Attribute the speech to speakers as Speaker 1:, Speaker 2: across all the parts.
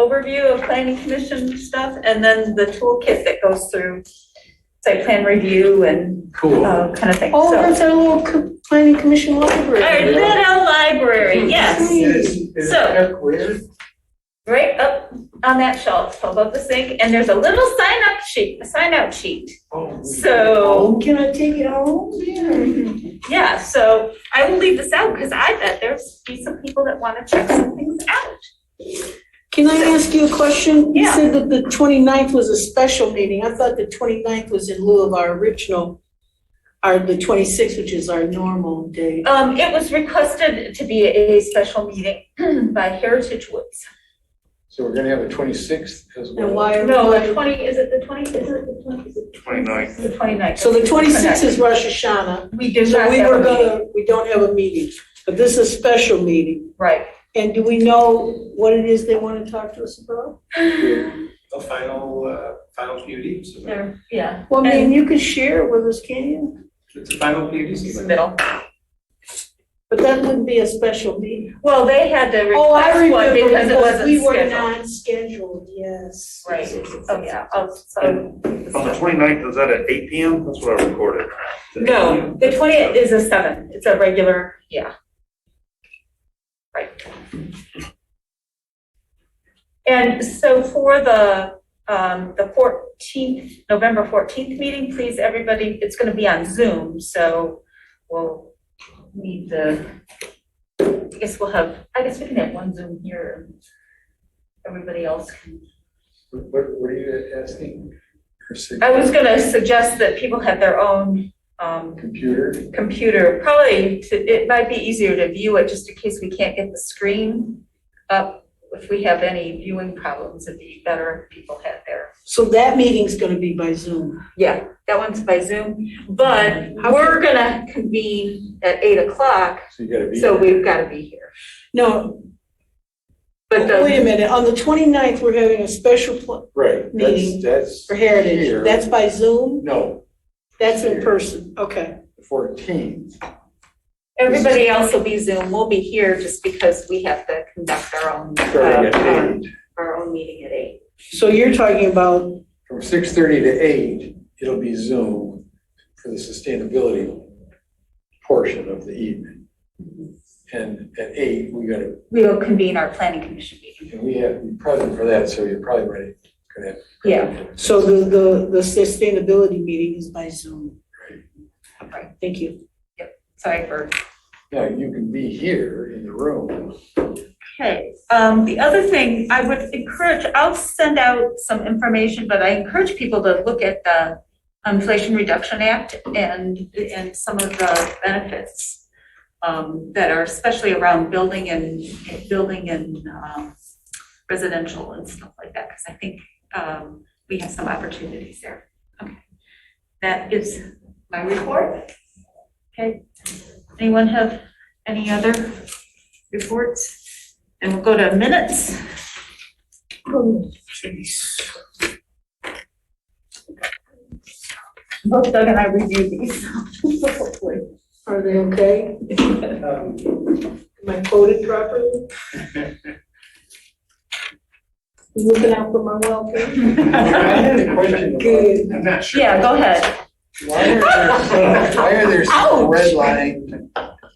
Speaker 1: overview of planning commission stuff and then the toolkit that goes through site plan review and
Speaker 2: Cool.
Speaker 1: uh, kind of thing.
Speaker 3: Oh,
Speaker 1: So,
Speaker 3: that's our little co- planning commission
Speaker 1: our
Speaker 3: library.
Speaker 1: little library, yes,
Speaker 2: Is, is
Speaker 1: So-
Speaker 2: that weird?
Speaker 1: right up on that shelf above the sink. And there's a little sign up sheet, a sign out sheet.
Speaker 2: Oh,
Speaker 1: So,
Speaker 3: Oh, can I take it home? Yeah.
Speaker 1: yeah, so I will leave this out because I bet there's be some people that want to check some things out.
Speaker 3: Can I ask you a question? You
Speaker 1: Yeah.
Speaker 3: said that the 29th was a special meeting. I thought the 29th was in lieu of our original, our, the 26th, which is our normal day.
Speaker 1: Um, it was requested to be a special meeting by Heritage Woods.
Speaker 2: So we're gonna have a twenty-sixth as well.
Speaker 3: And why?
Speaker 1: No,
Speaker 3: why-
Speaker 1: the twenty, is it the twenty, is it the twenty? is it the
Speaker 4: 29th.
Speaker 1: The twenty-ninth.
Speaker 3: So the 26th is Rosh Hashanah.
Speaker 1: We do
Speaker 3: So
Speaker 1: not
Speaker 3: we
Speaker 1: have a
Speaker 3: were
Speaker 1: meeting,
Speaker 3: gonna, we don't have a meeting, but this is a special meeting.
Speaker 1: right.
Speaker 3: And do we know what it is they want to talk to us about?
Speaker 5: the final, uh, final PUD submit.
Speaker 1: There, yeah.
Speaker 3: Well, I mean,
Speaker 1: And-
Speaker 3: you could share it with us, can you?
Speaker 5: It's a final PUD submit.
Speaker 1: Middle.
Speaker 3: But that wouldn't be a special meeting.
Speaker 1: Well, they had to
Speaker 3: Oh, I
Speaker 1: request one
Speaker 3: remember
Speaker 1: because it wasn't
Speaker 3: We were
Speaker 1: scheduled.
Speaker 3: not scheduled, yes.
Speaker 1: Right, oh, yeah, oh, so.
Speaker 4: And On the 29th, is that at eight PM? That's what I recorded.
Speaker 1: No, the twentieth is a seven, it's a regular, yeah. Right. And so for the, um, the fourteenth, November fourteenth meeting, please, everybody, it's gonna be on Zoom, so we'll need the, I guess we'll have, I guess we can have one Zoom here. and Everybody else can,
Speaker 2: What, what are you asking? Her sig-
Speaker 1: I was gonna suggest that people have their own, um,
Speaker 2: Computer?
Speaker 1: computer, probably, to- it might be easier to view it just in case we can't get the screen up. If we have any viewing problems, it'd be better if people had their.
Speaker 3: So that meeting's gonna be by Zoom.
Speaker 1: Yeah, that one's by Zoom, but we're gonna convene at eight o'clock,
Speaker 2: So you gotta be.
Speaker 1: so we've gotta be here.
Speaker 3: No,
Speaker 1: But
Speaker 3: wait a
Speaker 1: the,
Speaker 3: minute, on the 29th, we're having a special pl-
Speaker 2: Right,
Speaker 3: Meeting.
Speaker 2: that's, that's.
Speaker 3: for Heritage.
Speaker 2: here.
Speaker 3: That's by Zoom?
Speaker 2: No,
Speaker 3: That's in
Speaker 2: Here.
Speaker 3: person, okay.
Speaker 2: fourteenth.
Speaker 1: everybody else will be Zoom, we'll be here just because we have to conduct our own,
Speaker 2: Starting at
Speaker 1: uh,
Speaker 2: eight,
Speaker 1: our own meeting at eight.
Speaker 3: So you're talking about,
Speaker 2: from six thirty to eight, it'll be Zoom for the sustainability portion of the evening. And at eight, we gotta
Speaker 1: We will convene our planning commission meeting.
Speaker 2: And we have, to be present for that, so you're probably ready, gonna have.
Speaker 1: Yeah.
Speaker 3: so the, the, the sustainability meeting is by Zoom.
Speaker 1: Right.
Speaker 3: Thank you.
Speaker 1: Sorry for
Speaker 2: Now, you can be here in the room.
Speaker 1: Okay, um, the other thing I would encourage, I'll send out some information, but I encourage people to look at the um, Inflation Reduction Act and, and some of the benefits um, that are especially around building and, building and, um, residential and stuff like that, because I think, um, we have some opportunities there. Okay, That is my report. Okay, anyone have any other reports? And we'll go to minutes. Both Doug and I reviewed these, hopefully.
Speaker 3: Are they okay?
Speaker 5: Um,
Speaker 3: Am I quoted properly? You Looking out for my welfare?
Speaker 2: I had a question about.
Speaker 3: Good.
Speaker 5: I'm not sure.
Speaker 1: Yeah, go ahead.
Speaker 2: Why are there, why are there some red line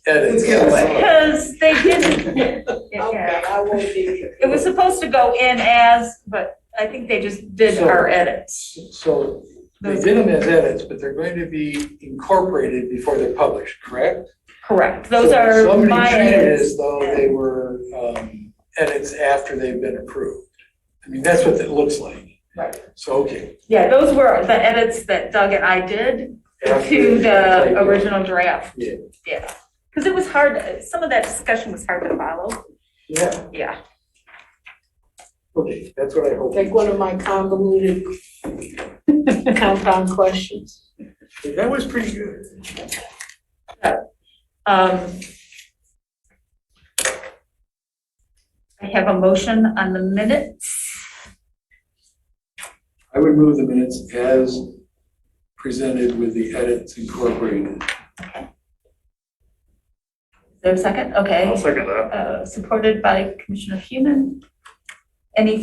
Speaker 2: edits?
Speaker 1: Because they didn't.
Speaker 3: Okay,
Speaker 1: Yeah.
Speaker 3: I won't be.
Speaker 1: It was supposed to go in as, but I think they just did our edits.
Speaker 2: So they did them as edits, but they're going to be incorporated before they're published, correct?
Speaker 1: Correct, those
Speaker 2: So
Speaker 1: are my
Speaker 2: Somebody treated it
Speaker 1: edits.
Speaker 2: as though they were um, edits after they've been approved. I mean, that's what it looks like.
Speaker 1: Right.
Speaker 2: So, okay.
Speaker 1: Yeah, those were the edits that Doug and I did
Speaker 2: After-
Speaker 1: to the original draft.
Speaker 2: Yeah.
Speaker 1: Yeah, because it was hard, some of that discussion was hard to follow.
Speaker 2: Yeah.
Speaker 1: Yeah.
Speaker 2: Okay, that's what I hope.
Speaker 3: Like one of my convoluted compound questions.
Speaker 2: That was pretty good.
Speaker 1: Um, I have a motion on the minutes.
Speaker 2: I would move the minutes as presented with the edits incorporated.
Speaker 1: Is there a second?
Speaker 4: I'll
Speaker 1: Okay.
Speaker 4: second that.
Speaker 1: Uh, Supported by Commissioner Human. Any